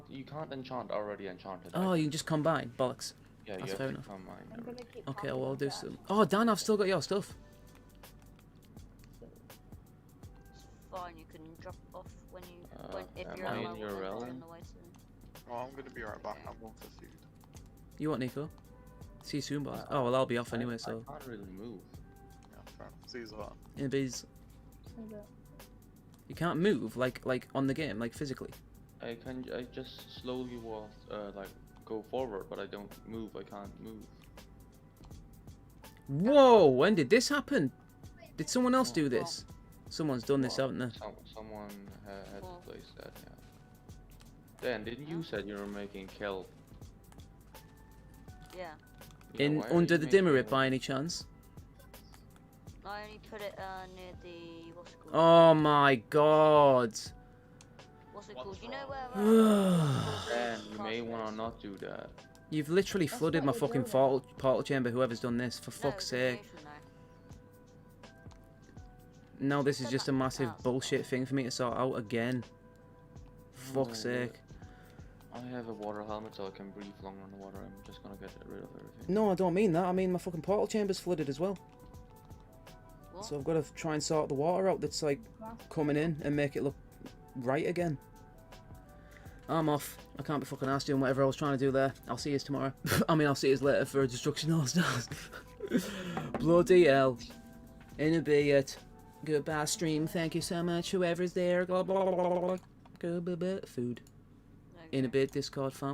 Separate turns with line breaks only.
you can't enchant already enchanted.
Oh,
items.
you can just combine. Bollocks.
yeah,
that's
you
fair
have
enough.
to combine
I'm gonna
everything.
keep.
Okay,
talking
well, I'll do
about
some. Oh, Dan, I've still got your stuff.
It's fine, you can drop off when you
Uh,
when if
am
you're
I in
on
your realm?
the way soon.
Well, Oh, I'm gonna be right back. I'm going for food.
You want Nico? See you soon, boss. Oh, well, I'll be off
I-
anyway, so.
I can't really move.
Yeah, fair enough. See you later.
Yeah, but he's-
that.
you can't move, like, like on the game, like physically.
I can I just slowly walk, uh, like go forward, but I don't move. I can't move.
Whoa, when did this happen? Did someone else do this? Someone's done this,
Well,
haven't they?
Some, someone ha- had
Well.
placed that. Yeah. Dan, didn't you said you were making kelp?
Yeah.
Yeah,
In
why are
under
you
the
making
dimmer it
kelp?
by any chance?
I only put it uh, near the what's it called?
Oh my god.
What's it
What's
called? You know
wrong?
where? uh,
Dan, you
Castle
may
is?
wanna not do that.
You've literally
That's
flooded
what
my
we're
fucking
doing.
portal, portal chamber, whoever's done this, for
No,
fuck's
it's in the
sake.
ocean though.
Now this is
Come
just a
on,
massive
Charles.
bullshit thing for me to sort out again. Fuck's
Oh, yeah.
sake.
I have a water helmet, so I can breathe longer in the water. I'm just gonna get rid of everything.
No, I don't mean that. I mean my fucking portal chamber's flooded as well.
What?
So I've got to try and sort the water out that's like coming in and make it look right again. I'm off. I can't be fucking asked doing whatever I was trying to do there. I'll see you tomorrow. I mean, I'll see you later for Destruction All Stars. Bloody hell. In a be it. Goodbye, stream. Thank you so much, whoever's there. Blah, blah, blah, blah, blah. Goodbye, food.
No,
In a
okay.
bit, Discord fam.